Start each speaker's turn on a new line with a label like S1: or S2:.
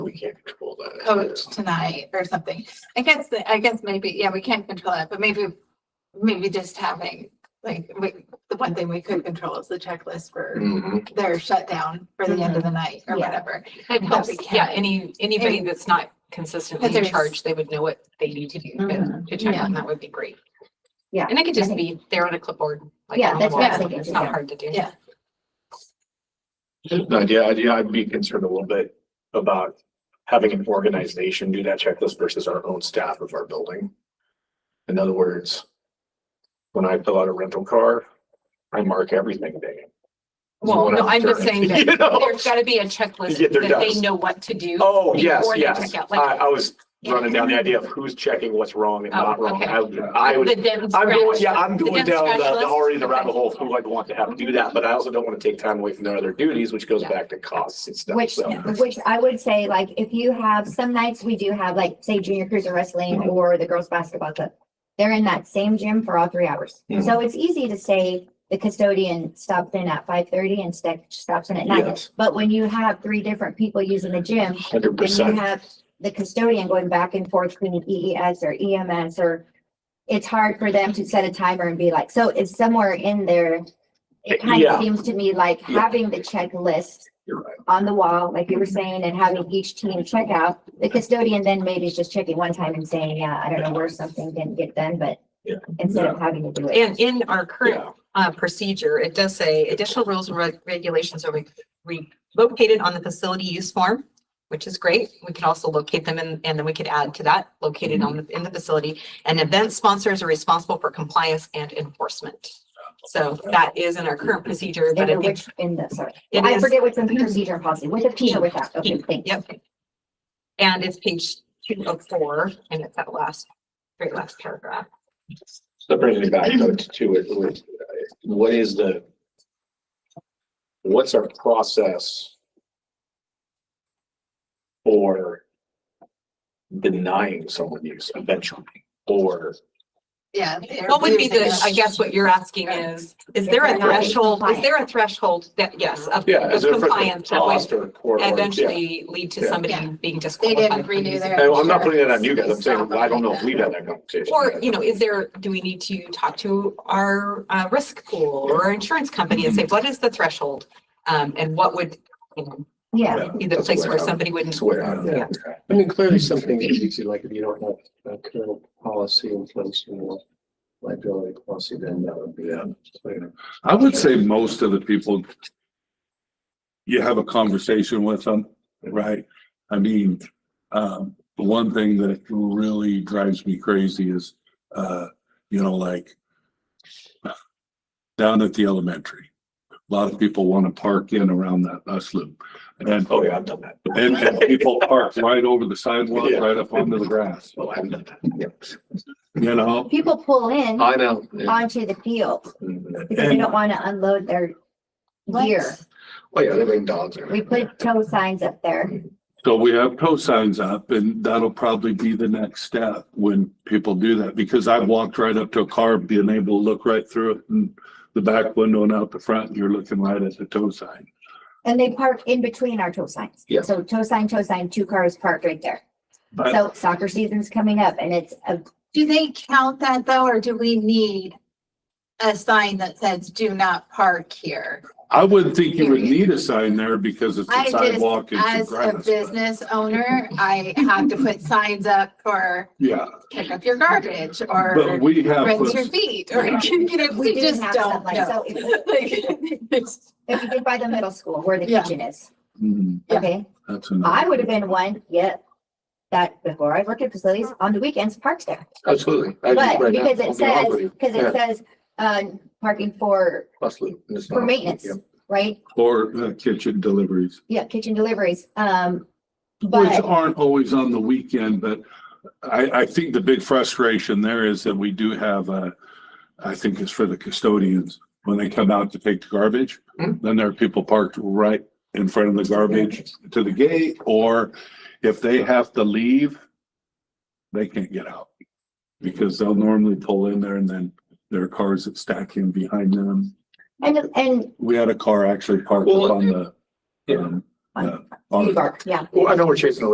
S1: we can't control that.
S2: Oh,
S3: code tonight or something. I guess, the- I guess maybe, yeah, we can't control it, but maybe, maybe just having, like, we, the one thing we could control is the checklist for
S1: Mhm.
S4: Mm-hmm.
S3: their shutdown for the end of the
S2: Mm-hmm.
S3: night or
S5: Yeah.
S3: whatever.
S2: It helps,
S3: we can.
S2: yeah, any, anybody
S3: And-
S2: that's not consistently
S3: But
S2: in
S3: there's-
S2: charge, they would know what they need to do to-
S5: Mhm.
S2: to check
S3: Yeah.
S2: on, that would be great.
S5: Yeah,
S2: And it could
S5: I
S2: just
S5: think-
S2: be there on a clipboard. like
S5: Yeah,
S2: on the
S5: that's
S3: what I was
S2: wall.
S5: thinking,
S2: It's not
S5: yeah.
S2: hard to do.
S3: Yeah.
S1: Just an idea, idea, I'd be concerned a little bit about having an organization do that checklist versus our own staff of our building. In other words, when I fill out a rental car, I mark everything dang. it.
S2: Well,
S1: When
S2: no, I'm just
S1: returning,
S2: saying that
S1: you know?
S2: There's gotta be a checklist
S1: Yeah, there
S2: that they
S1: does.
S2: know what to do.
S1: Oh, yes,
S2: before they
S1: yes.
S2: check out,
S1: I,
S2: like-
S1: I was running down the idea of who's checking what's wrong and
S2: Oh,
S1: not wrong.
S2: okay.
S1: I, I would,
S2: The Denton's
S1: I'm going, yeah,
S2: scratch-
S1: I'm
S2: the
S1: going
S2: Denton's
S1: down the,
S2: scratch
S1: the
S2: list?
S1: already the
S2: Okay.
S1: rabbit hole of who I'd want to have do that, but I also don't want to take time away from their other duties, which goes
S2: Yeah.
S1: back to costs and stuff.
S5: Which,
S1: So,
S5: which I would say, like, if you have, some nights we do have, like, say junior cruiser wrestling
S1: Mm-hmm.
S5: or the girls basketball club. They're in that same gym for all three hours.
S1: Mhm.
S5: So it's easy to say the custodian stops in at five thirty and sta- stops in at nine.
S1: yes,
S5: But when you have three different people using the gym,
S1: hundred
S5: then you
S1: percent.
S5: have the custodian going back and forth between EES or EMS or it's hard for them to set a timer and be like, so it's somewhere in there. It kind
S1: Yeah.
S5: of seems to me like
S1: Yeah.
S5: having the checklist
S1: You're right.
S5: on the wall, like you were saying, and having each team check out. The custodian then maybe is just checking one time and saying, yeah, I don't know where something didn't get done, but
S1: Yeah.
S5: instead of having to do it.
S2: And in our current
S1: Yeah.
S2: uh, procedure, it does say additional rules and reg- regulations are re- re- located on the facility use form, which is great. We could also locate them and, and then we could add to that, located on, the- in the facility. And event sponsors are responsible for compliance and enforcement. So that is in our current procedure, but I
S5: In
S2: think
S5: which, in the, sorry,
S2: it
S5: I
S2: is,
S5: forget what's in the procedure and policy, with a P or without, okay,
S2: P,
S5: thanks.
S2: yep. And it's page two of four, and it's that last, very last paragraph.
S1: So that brings me back though, to it, with, uh, what is the, what's our process for denying someone use eventually, or
S3: Yeah.
S2: What would be the, I guess what you're asking is, is there a
S5: Right.
S2: threshold, is there a threshold that, yes, of
S1: Yeah, as
S2: of
S1: a
S2: compliance that
S1: cost
S2: would
S1: or court. or- yeah.
S2: eventually lead to
S1: Yeah.
S2: somebody
S3: Yeah.
S2: being
S3: They
S2: disqualified?
S3: didn't
S2: from
S3: renew
S2: using-
S3: their.
S1: And I'm not putting that on you guys. I'm
S3: insurance
S1: saying,
S3: based
S1: I don't
S3: off
S1: know
S3: of
S1: if we've had that conversation.
S2: Or, you know, is there, do we need to talk to our uh, risk pool or our insurance company and say, what is the threshold? Um, And what would, you know,
S5: Yeah,
S2: be the
S1: That's
S2: place
S1: where
S2: where
S1: I'm-
S2: somebody wouldn't?
S1: That's where I'm-
S6: Yeah. I mean, clearly something is easy, like if you don't have a current policy in place, you know, liability policy, then that would be. uh,
S1: Yeah.
S6: clear.
S4: I would say most of the people you have a conversation with them, right? I mean, um, the one thing that really drives me crazy is, uh, you know, like down at the elementary, a lot of people want to park in around that bus loop. And,
S1: Oh, yeah, I've done that.
S4: and and people park right over the sidewalk,
S1: Yeah.
S4: right up onto the grass,
S1: Well, I've Oh, done that.
S4: you know?
S5: people pull in
S1: I know.
S5: onto the field.
S1: Oh,
S5: Because they
S4: And-
S5: don't want to unload their gear.
S1: Oh, yeah, they bring dogs. in.
S5: We put tow signs up there.
S4: So we have tow signs up and that'll probably be the next step when people do that, because I've walked right up to a car, being able to look right through it and the back window and out the front, and you're looking right at the tow sign.
S5: And they park in between our tow signs.
S1: Yeah.
S5: So tow sign, tow sign, two cars parked right there.
S4: But
S5: So soccer season's coming up and it's a,
S3: Do they count that though, or do we need a sign that says do not park here?
S4: I wouldn't think you would need a sign there because it's
S3: I
S4: a
S3: just-
S4: sidewalk, it's a
S3: As a
S4: grass. but-
S3: business owner, I have to put signs up for
S4: Yeah,
S3: pick up your garbage or
S4: but we have,
S3: rinse
S4: put-
S3: your feet or, you know,
S5: we
S3: we
S5: didn't
S3: just
S5: have
S3: don't
S5: some, like,
S3: know.
S5: so if if you did by the middle school where the
S3: Yeah.
S5: kitchen is,
S4: Hmm,
S3: Yeah.
S5: okay?
S4: that's another.
S5: I would have been one, yep. That before I worked at facilities, on the weekends parked there.
S1: Absolutely. I do
S5: But
S1: right now.
S5: because
S1: I'll
S5: it
S1: be honest
S5: says,
S1: with you.
S5: because
S1: Yeah.
S5: it says, uh, parking for,
S1: Bus loop, and it's
S5: for
S1: not-
S5: maintenance,
S1: yeah.
S5: right?
S4: Or uh, kitchen deliveries.
S5: Yeah, kitchen deliveries, um,
S4: Which
S5: but.
S4: aren't always on the weekend, but I, I think the big frustration there is that we do have, uh, I think it's for the custodians, when they come out to take the garbage,
S1: Hmm.
S4: then there are people parked right in front of the garbage to the gate, or if they have to leave, they can't get out. Because they'll normally pull in there and then there are cars that stack in behind them.
S5: And, and
S4: We had a car actually parked up
S1: Well,
S4: on the, um,
S5: yeah.
S4: uh, on-
S5: bark, yeah.
S1: Well, I know we're chasing a